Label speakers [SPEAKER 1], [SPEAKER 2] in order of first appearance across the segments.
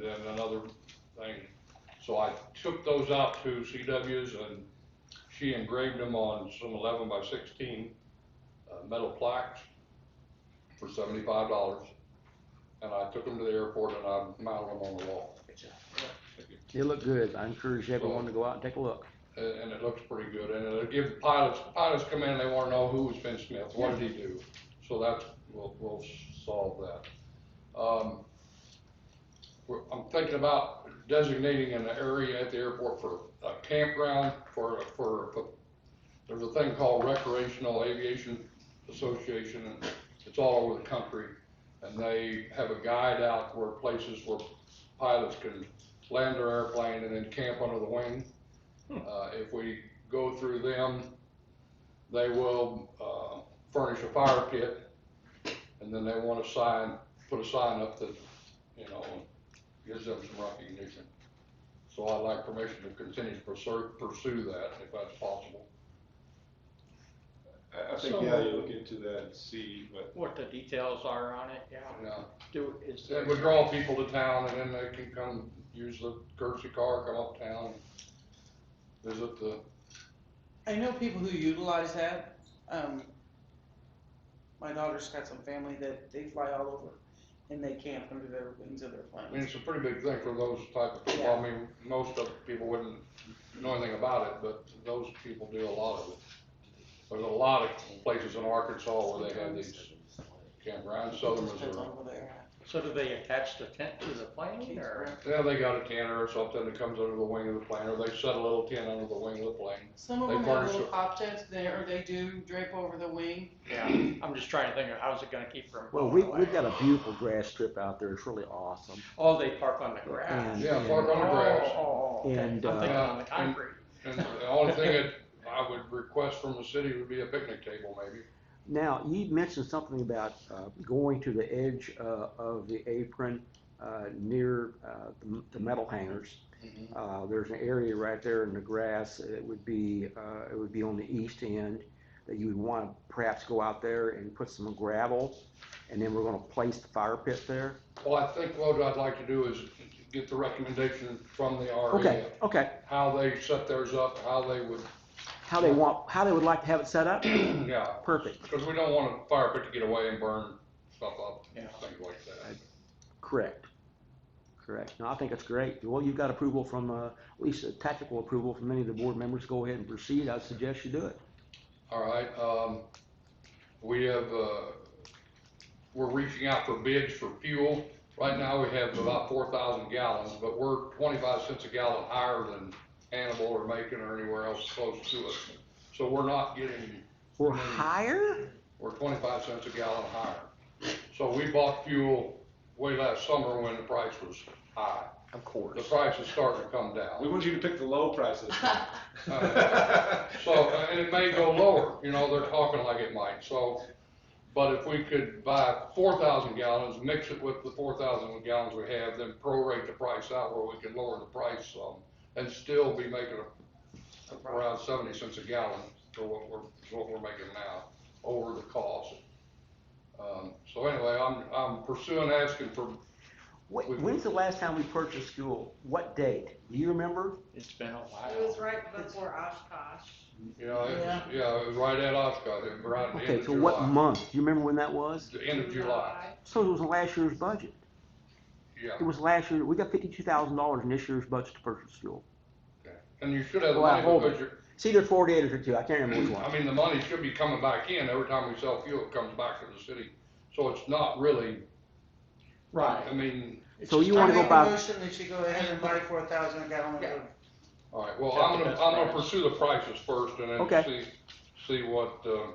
[SPEAKER 1] then another thing. So I took those out to CW's and she engraved them on some eleven by sixteen, uh, metal plaques for seventy-five dollars. And I took them to the airport and I mounted them on the wall.
[SPEAKER 2] They look good. I encourage everyone to go out and take a look.
[SPEAKER 1] And, and it looks pretty good, and it'll give pilots, pilots come in, they wanna know who was Finn Smith, what did he do? So that's, we'll, we'll solve that. Um, we're, I'm thinking about designating an area at the airport for a campground, for, for, for- there's a thing called Recreational Aviation Association, and it's all over the country. And they have a guide out where places where pilots can land their airplane and then camp under the wing. Uh, if we go through them, they will, uh, furnish a fire pit, and then they want to sign, put a sign up that, you know, gives them some recognition. So I'd like permission to continue to pursue, pursue that, if that's possible.
[SPEAKER 3] I, I think,
[SPEAKER 4] So-
[SPEAKER 3] yeah, you look into that and see, but
[SPEAKER 4] what the details are on it, yeah.
[SPEAKER 1] Now,
[SPEAKER 4] Do, is
[SPEAKER 1] It
[SPEAKER 4] there,
[SPEAKER 1] would draw people to town, and then they can come use the courtesy car, come uptown, visit the,
[SPEAKER 5] I know people who utilize that. Um, my daughter's got some family that they fly all over and they camp under their wings of their
[SPEAKER 1] I mean,
[SPEAKER 5] planes.
[SPEAKER 1] it's a pretty big thing for those type of people. I mean, most of the people wouldn't know anything about it, but those people do a lot of it. There's a lot of places in Arkansas where they have these campgrounds, southern
[SPEAKER 5] Just depends
[SPEAKER 1] Missouri.
[SPEAKER 5] on where they're
[SPEAKER 4] so do they attach the tent to the plane or?
[SPEAKER 5] at.
[SPEAKER 1] Yeah, they got a tent or something that comes under the wing of the plane, or they set a little tent under the wing of the plane.
[SPEAKER 5] Some of
[SPEAKER 1] They
[SPEAKER 5] them have
[SPEAKER 1] furnish
[SPEAKER 5] little
[SPEAKER 1] it.
[SPEAKER 5] pop tents there, or they do drape over the wing.
[SPEAKER 4] Yeah, I'm just trying to think of how's it gonna keep from.
[SPEAKER 2] Well, we,
[SPEAKER 4] blowing away.
[SPEAKER 2] we've got a beautiful grass strip out there. It's really awesome.
[SPEAKER 4] Oh, they park on the grass.
[SPEAKER 2] And-
[SPEAKER 1] Yeah, park on the grass.
[SPEAKER 4] Oh, oh, okay. I'm
[SPEAKER 2] And,
[SPEAKER 4] thinking
[SPEAKER 2] uh,
[SPEAKER 4] on the concrete.
[SPEAKER 1] And the only thing that I would request from the city would be a picnic table, maybe.
[SPEAKER 2] Now, you mentioned something about uh, going to the edge uh, of the apron uh, near uh, the- the metal hangers. Uh, There's an area right there in the grass, it would be, uh, it would be on the east end, that you would want to perhaps go out there and put some gravel, and then we're going to place the fire pit there.
[SPEAKER 1] Well, I think what I'd like to do is get the recommendation from the
[SPEAKER 2] Okay,
[SPEAKER 1] REA,
[SPEAKER 2] okay.
[SPEAKER 1] how they set theirs up, how they would,
[SPEAKER 2] How they want, how they would like to have it set up?
[SPEAKER 1] yeah,
[SPEAKER 2] Perfect,
[SPEAKER 1] Because we don't want a fire pit to get away and burn stuff up,
[SPEAKER 4] Yeah.
[SPEAKER 1] things like that.
[SPEAKER 2] correct, correct. No, I think it's great. Well, you've got approval from, uh, at least a tactical approval from many of the board members. Go ahead and proceed. I suggest you do it.
[SPEAKER 1] All right, um, we have, uh, we're reaching out for bids for fuel. Right now, we have about four thousand gallons, but we're twenty-five cents a gallon higher than Hannibal or Macon or anywhere else close to us. So we're not getting
[SPEAKER 2] Or higher?
[SPEAKER 1] We're twenty-five cents a gallon higher. So we bought fuel way last summer when the price was high.
[SPEAKER 2] Of
[SPEAKER 1] The
[SPEAKER 2] course.
[SPEAKER 1] price is starting to come
[SPEAKER 3] we
[SPEAKER 1] down.
[SPEAKER 3] want you to pick the low prices.
[SPEAKER 4] oh.
[SPEAKER 1] Uh, So, uh, and it may go lower, you know, they're talking like it might, so. But if we could buy four thousand gallons, mix it with the four thousand gallons we have, then prorate the price out where we can lower the price some and still be making a- around seventy cents a gallon for what we're, for what we're making now, over the cost. Um, so anyway, I'm, I'm pursuing asking for,
[SPEAKER 2] When's the last time we purchased fuel? What date? Do you remember?
[SPEAKER 4] It's been a
[SPEAKER 6] It was
[SPEAKER 4] while.
[SPEAKER 6] right before Oshkosh.
[SPEAKER 1] you know, it was, yeah, it was right at Oshkosh, it was right at the end
[SPEAKER 2] Okay,
[SPEAKER 1] of
[SPEAKER 2] so what
[SPEAKER 1] July.
[SPEAKER 2] month? Do you remember when that was?
[SPEAKER 1] The end of July,
[SPEAKER 2] So it was last year's budget.
[SPEAKER 1] yeah.
[SPEAKER 2] It was last year, we got fifty-two thousand dollars in this year's budget to purchase fuel.
[SPEAKER 1] And you should have the
[SPEAKER 2] Well, I
[SPEAKER 1] money
[SPEAKER 2] hope
[SPEAKER 1] because you're,
[SPEAKER 2] It's either forty-eight or fifty-two, I can't remember which
[SPEAKER 1] I
[SPEAKER 2] one.
[SPEAKER 1] mean, the money should be coming back in, every time we sell fuel, it comes back to the city, so it's not really,
[SPEAKER 4] Right.
[SPEAKER 1] I mean,
[SPEAKER 4] It's
[SPEAKER 2] So
[SPEAKER 4] just
[SPEAKER 2] you wanna
[SPEAKER 4] not-
[SPEAKER 2] go
[SPEAKER 5] I
[SPEAKER 2] buy-
[SPEAKER 5] make a motion that you go ahead and buy four thousand a gallon
[SPEAKER 6] Yeah.
[SPEAKER 5] of
[SPEAKER 1] alright, well,
[SPEAKER 4] Check
[SPEAKER 1] I'm
[SPEAKER 4] the
[SPEAKER 1] gonna,
[SPEAKER 4] best
[SPEAKER 1] I'm gonna
[SPEAKER 4] price.
[SPEAKER 1] pursue the prices first and then
[SPEAKER 2] Okay.
[SPEAKER 1] see, see what, uh,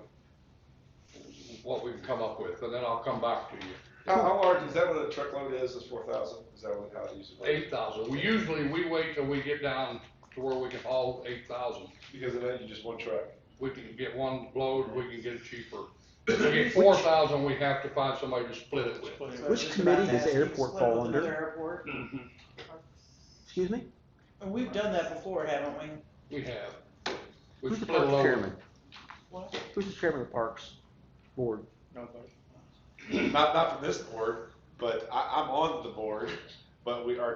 [SPEAKER 1] what we can come up with, and then I'll come back to you.
[SPEAKER 3] How, how large, is that what a truckload is, is four thousand, is that what, how it usually? works?
[SPEAKER 1] Eight thousand, we usually, we wait till we get down to where we can haul eight thousand,
[SPEAKER 3] Because of that, you just one truck.
[SPEAKER 1] we can get one load, we can get it cheaper. If we get four thousand, we have to find somebody to split it with.
[SPEAKER 4] Split it.
[SPEAKER 5] So
[SPEAKER 2] Which
[SPEAKER 5] just
[SPEAKER 2] committee
[SPEAKER 5] about
[SPEAKER 2] does the
[SPEAKER 5] asking to
[SPEAKER 2] airport
[SPEAKER 5] split it
[SPEAKER 2] fall
[SPEAKER 5] with
[SPEAKER 2] under?
[SPEAKER 5] another airport.
[SPEAKER 2] Excuse me?
[SPEAKER 5] And we've done that before, haven't we?
[SPEAKER 1] We have. We
[SPEAKER 2] Who's the
[SPEAKER 1] split a
[SPEAKER 2] parks
[SPEAKER 1] load.
[SPEAKER 2] chairman?
[SPEAKER 5] What?
[SPEAKER 2] Who's the chairman of the parks board?
[SPEAKER 4] Nobody.
[SPEAKER 3] Not, not from this board, but I, I'm on the board, but we are